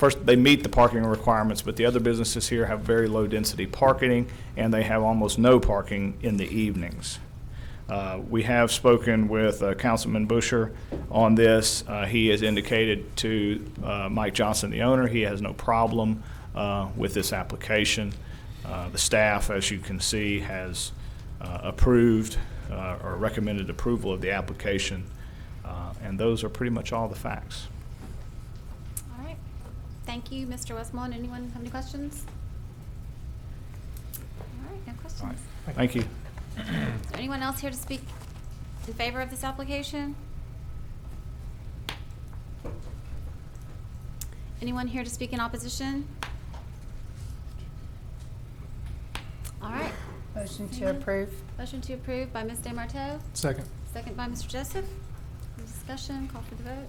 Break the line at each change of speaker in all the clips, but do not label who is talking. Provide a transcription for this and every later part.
first, they meet the parking requirements, but the other businesses here have very low-density parking, and they have almost no parking in the evenings. Uh, We have spoken with uh, Councilman Busher on this. Uh, He has indicated to uh, Mike Johnson, the owner, he has no problem uh, with this application. Uh, The staff, as you can see, has uh, approved uh, or recommended approval of the application, Uh, and those are pretty much all the facts.
All right. Thank you, Mr. Westmoreland. Anyone have any questions? All right,
All
no
right.
questions.
Thank you.
Is there anyone else here to speak in favor of this application? Anyone here to speak in opposition? All right.
Motion to
Anyone?
approve.
Motion to approve by Ms. DeMarteau,
Second.
second by Mr. Joseph. Any Discussion, call for the vote.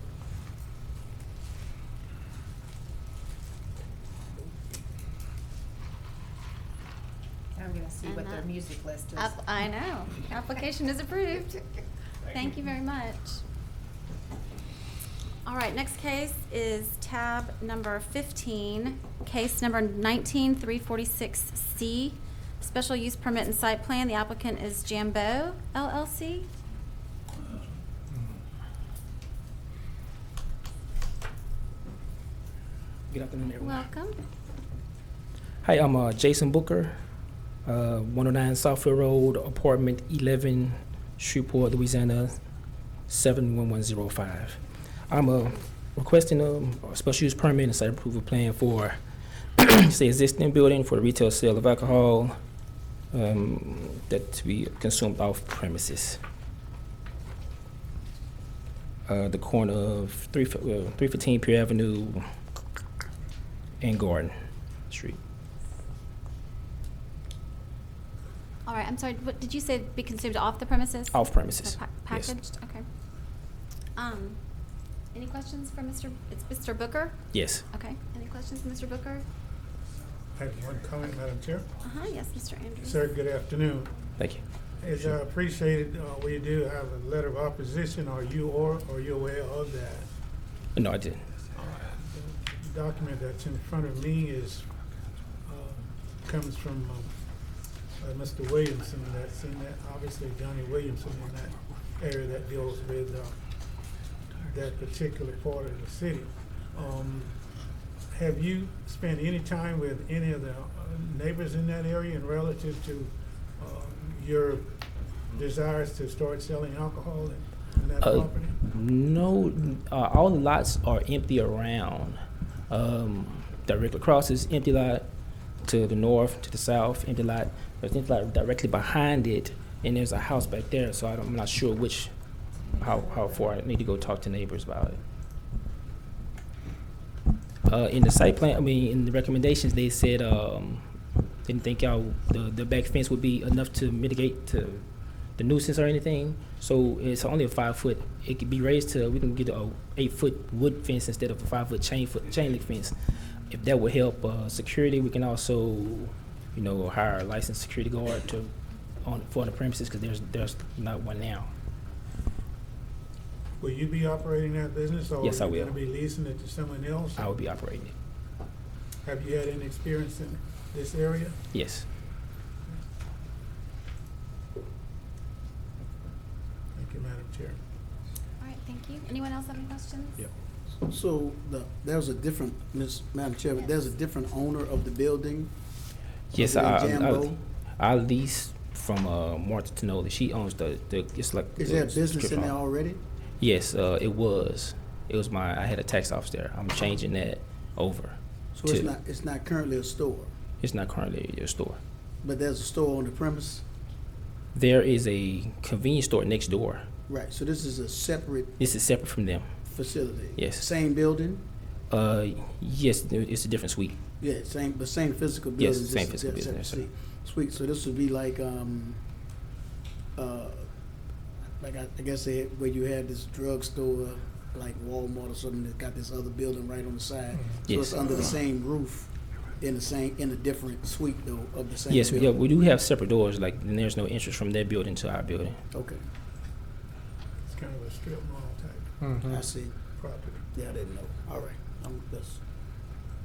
I'm gonna see what
And
their
that-
music list is.
App- I know. Application is approved. Thank you very much. All right, next case is tab number 15, case number 19346C, special use permit and site plan. The applicant is Jambo LLC.
Good afternoon, everyone.
Welcome.
Hi, I'm uh, Jason Booker, uh, 109 Southfield Road, apartment 11, Shreveport, Louisiana, 71105. I'm uh, requesting um, a special use permit and site approval plan for the existing building for the retail sale of alcohol um, that to be consumed off premises. Uh, The corner of 3 fi- uh, 315 Pier Avenue and Garden Street.
All right, I'm sorry, what, did you say be consumed off the premises?
Off premises,
Pa-
yes.
Packaged, okay. Um, any questions for Mr., it's Mr. Booker?
Yes.
Okay, any questions for Mr. Booker?
I have one comment, Madam Chair.
Uh-huh, yes, Mr. Andrews.
Sir, good afternoon.
Thank you.
As I appreciated, uh, we do have a letter of opposition, or you or, or you're aware of that.
Uh, No, I didn't.
The document that's in front of me is, uh, comes from uh, uh, Mr. Williamson, that's in that, obviously Johnny Williamson in that area that deals with uh, that particular part of the city. Um, Have you spent any time with any of the uh, neighbors in that area and relative to uh, your desires to start selling alcohol in- in that
Uh,
property?
No, uh, all the lots are empty around. Um, directly across is empty lot to the north, to the south, empty lot. There's empty lot directly behind it, and there's a house back there. So I don't, I'm not sure which, how, how far I need to go talk to neighbors about it. Uh, in the site plan, I mean, in the recommendations, they said um, didn't think y'all the, the back fence would be enough to mitigate to the nuisance or anything. So it's only a five foot. It could be raised to we can get a eight foot wood fence instead of a five foot chain foot chain link fence. If that would help uh, security, we can also, you know, hire a licensed security guard to on for the premises because there's there's not one now.
Will you be operating that business?
Yes, I
Or are you
will.
going to be leasing it to someone else?
I would be operating it.
Have you had any experience in this area?
Yes.
Thank you, Madam Chair.
All right, thank you. Anyone else have any questions?
Yep.
So the, there's a different, Ms. Madam Chair, but there's a different owner of the building?
Yes,
Other
I,
than
I,
Jambo?
I lease from uh, Martha Tanola. She owns the, the it's like
Is
the
there a business
strip
in there
mall.
already?
Yes, uh, it was. It was my. I had a tax office there. I'm changing that over.
So it's
to-
not, it's not currently a store,
It's not currently your store.
but there's a store on the premise?
There is a convenience store next door.
Right, so this is a separate
This is separate from them.
facility?
Yes.
Same building?
Uh, yes, there- it's a different suite.
Yeah, same, but same physical
Yes,
building?
same
just a
physical
separate
business, sir.
seat. Sweet, so this would be like, um, uh, like I, I guess they, where you had this drugstore, like Walmart or something, that got this other building right on the side? So
Yes.
it's under the same roof, in the same, in a different suite though, of the same
Yes, we, yeah,
building?
we do have separate doors. Like and there's no entrance from that building to our building.
Okay,
It's kind of a strip mall type
I see,
property.
yeah, I didn't know, all right, I'm, that's,